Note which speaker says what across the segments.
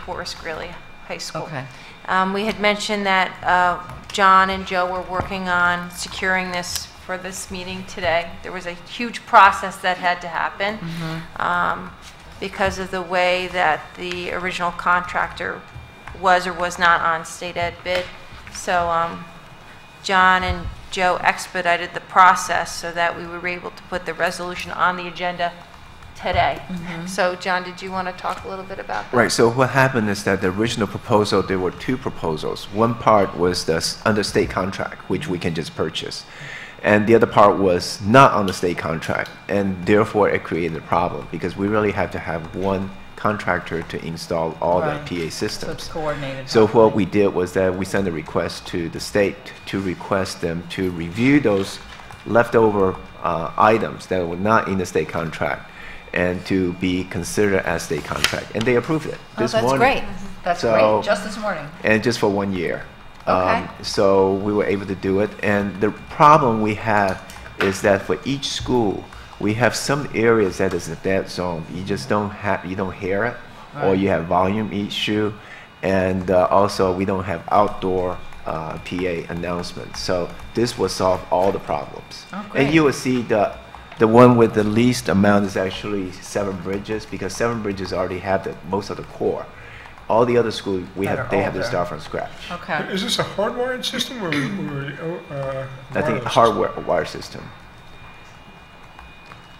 Speaker 1: Horace Greeley High School.
Speaker 2: Okay.
Speaker 1: Um, We had mentioned that uh, John and Joe were working on securing this for this meeting today. There was a huge process that had to happen um, because of the way that the original contractor was or was not on state ed bid. So um, John and Joe expedited the process so that we were able to put the resolution on the agenda today. So John, did you want to talk a little bit about that?
Speaker 3: Right, so what happened is that the original proposal, there were two proposals. One part was the s- under state contract, which we can just purchase. And the other part was not on the state contract, and therefore it created a problem because we really have to have one contractor to install all the
Speaker 2: Right.
Speaker 3: PA
Speaker 2: So it's
Speaker 3: systems.
Speaker 2: coordinated.
Speaker 3: So what we did was that we sent a request to the state to request them to review those leftover uh, items that were not in the state contract and to be considered as state contract. And they approved it
Speaker 2: Oh,
Speaker 3: this
Speaker 2: that's
Speaker 3: morning.
Speaker 2: great. That's
Speaker 3: So-
Speaker 2: great. Just this morning.
Speaker 3: And just for one year.
Speaker 2: Okay.
Speaker 3: Um, so we were able to do it. And the problem we have is that for each school, we have some areas that is a dead zone. You just don't have, you don't hear it, or
Speaker 2: Right.
Speaker 3: you have volume issue, and uh, also we don't have outdoor uh, PA announcements. So this will solve all the problems.
Speaker 2: Oh,
Speaker 3: and you
Speaker 2: great.
Speaker 3: will see the the one with the least amount is actually Seven Bridges because Seven Bridges already have the most of the core. All the other schools we
Speaker 2: That
Speaker 3: have
Speaker 2: are
Speaker 4: Oh,
Speaker 3: they have to
Speaker 2: older.
Speaker 3: start from scratch.
Speaker 2: Okay.
Speaker 5: Is this a hardwired system or, or uh,
Speaker 3: I think
Speaker 5: wireless?
Speaker 3: hardware wire system.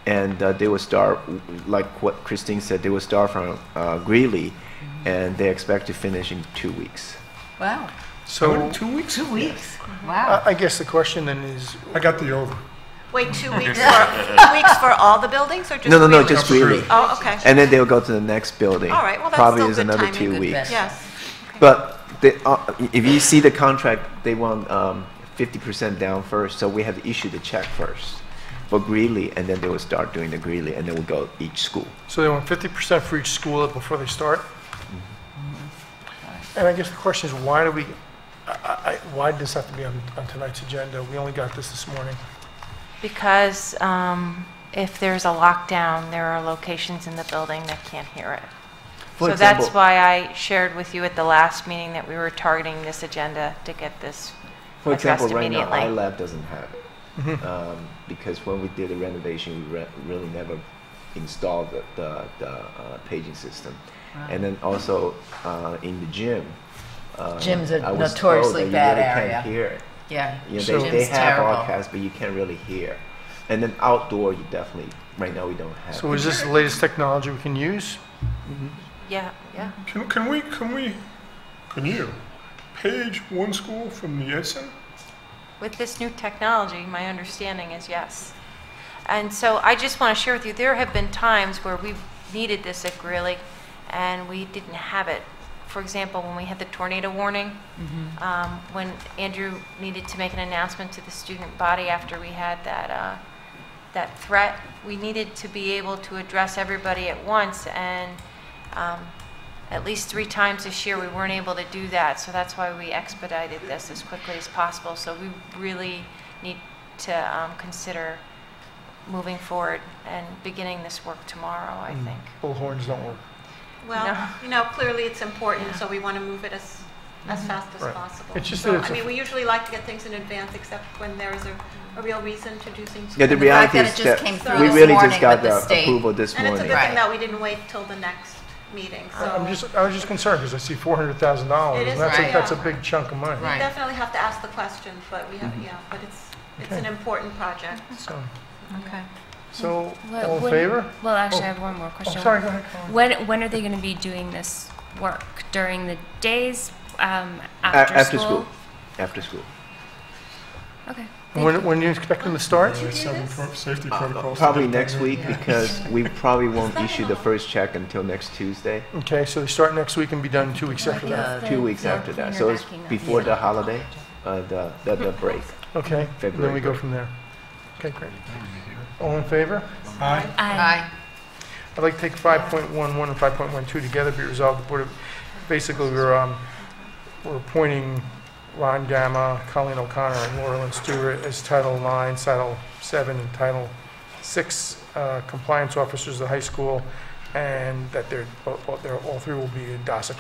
Speaker 3: And uh, they will start, like what Christine said, they will start from uh, Greeley,
Speaker 4: Mm-hmm.
Speaker 3: and they expect to finish in two weeks.
Speaker 2: Wow.
Speaker 6: So,
Speaker 5: Two weeks?
Speaker 2: Two weeks.
Speaker 7: I
Speaker 2: Wow.
Speaker 7: I guess the question then is,
Speaker 5: I got the over.
Speaker 4: Wait, two weeks for, two weeks for all the buildings or just?
Speaker 3: No, no, no,
Speaker 4: Greeley?
Speaker 3: just
Speaker 5: Greeley.
Speaker 3: Greeley.
Speaker 4: Oh, okay.
Speaker 3: And then they will go to the next building.
Speaker 4: All right, well, that's
Speaker 3: Probably
Speaker 4: still
Speaker 3: is
Speaker 4: good
Speaker 3: another
Speaker 4: timing,
Speaker 3: two
Speaker 4: good
Speaker 3: weeks.
Speaker 4: Yes.
Speaker 3: But they, uh, if you see the contract, they want um, 50% down first, so we have to issue the check first for Greeley, and then they will start doing the Greeley, and then we'll go each school.
Speaker 7: so they want 50% for each school before they start? And I guess the question is, why do we, I- I- I- why did this have to be on on tonight's agenda? We only got this this morning.
Speaker 1: Because um, if there's a lockdown, there are locations in the building that can't hear it.
Speaker 3: For
Speaker 1: So
Speaker 3: example-
Speaker 1: that's why I shared with you at the last meeting that we were targeting this agenda to get this
Speaker 3: For example,
Speaker 1: addressed
Speaker 3: right now,
Speaker 1: immediately.
Speaker 3: iLab doesn't have it. Um, because when we did the renovation, we re- really never installed the, the, the uh, paging system. And then also uh, in the gym. Uh,
Speaker 2: Gym's a
Speaker 3: I was told
Speaker 2: notoriously
Speaker 3: that you
Speaker 2: bad
Speaker 3: really
Speaker 2: area.
Speaker 3: Can't hear it.
Speaker 2: Yeah.
Speaker 3: You know,
Speaker 2: Jim's
Speaker 3: they, they have
Speaker 2: terrible.
Speaker 3: broadcasts, but you can't really hear. And then outdoor, you definitely, right now, we don't have.
Speaker 7: So is this the latest technology we can use?
Speaker 1: Yeah, yeah.
Speaker 5: Can, can we, can we, can you page one school from the Edison?
Speaker 1: With this new technology, my understanding is yes. And so I just want to share with you, there have been times where we've needed this at Greeley and we didn't have it. For example, when we had the tornado warning, um, when Andrew needed to make an announcement to the student body after we had that, uh, that threat, we needed to be able to address everybody at once and um, at least three times this year, we weren't able to do that, so that's why we expedited this as quickly as possible. So we really need to um, consider moving forward and beginning this work tomorrow, I think.
Speaker 7: Bullhorns don't work.
Speaker 1: No.
Speaker 4: Well, you know, clearly it's important, so we want to move it as, as fast as
Speaker 7: Right.
Speaker 4: possible.
Speaker 7: It's just
Speaker 4: So,
Speaker 7: that it's
Speaker 4: I
Speaker 7: a-
Speaker 4: mean, we usually like to get things in advance, except when there is a, a real reason to do things.
Speaker 3: Yeah, the
Speaker 2: And the fact
Speaker 3: reality
Speaker 2: that it
Speaker 3: is
Speaker 2: just
Speaker 3: that
Speaker 2: came
Speaker 4: through
Speaker 3: we
Speaker 4: this
Speaker 3: really
Speaker 2: morning
Speaker 3: just got
Speaker 2: with the
Speaker 3: the
Speaker 2: state.
Speaker 3: approval this
Speaker 4: And
Speaker 3: morning.
Speaker 4: it's a good
Speaker 2: Right.
Speaker 4: thing that we didn't wait till the next meeting, so.
Speaker 7: I'm just, I was just concerned because I see $400,000.
Speaker 4: It is
Speaker 7: and That's
Speaker 2: right.
Speaker 7: a, that's a big chunk of money.
Speaker 2: Right.
Speaker 4: Definitely have to ask the question, but we have,
Speaker 7: Mm-hmm.
Speaker 4: yeah, but it's, it's an important project.
Speaker 7: So,
Speaker 8: Okay.
Speaker 7: so
Speaker 8: What-
Speaker 7: all in
Speaker 8: when-
Speaker 7: favor?
Speaker 8: Well, actually, I
Speaker 7: Oh.
Speaker 8: have one more
Speaker 7: Oh,
Speaker 8: question.
Speaker 7: sorry, go ahead. Colin.
Speaker 8: When, when are they going to be doing this work? During the days, um,
Speaker 3: A-
Speaker 8: after,
Speaker 3: after
Speaker 8: school?
Speaker 3: school. After school.
Speaker 8: Okay.
Speaker 7: When, when do you expect them to start?
Speaker 5: There are several pro- safety protocols.
Speaker 3: Probably
Speaker 5: that they-
Speaker 3: next week because we probably won't issue the first check until next Tuesday,
Speaker 7: Okay, so they start next week and be done two weeks after that.
Speaker 8: uh,
Speaker 3: two weeks after that. So it's before the holiday, uh, the, the, the break.
Speaker 7: Okay, and then we go
Speaker 3: February.
Speaker 7: from there. Okay, great. All in favor?
Speaker 5: Aye.
Speaker 8: I,
Speaker 2: Aye.
Speaker 7: I'd like to take 5.11 and 5.12 together, be resolved, the Board of, basically, we're, um, we're appointing Ron Gamma, Colleen O'Connor, and Laura Lynn Stewart as Title IX, Title VII, and Title VI uh, compliance officers of the high school, and that they're, both- both- they're, all three will be in DASSA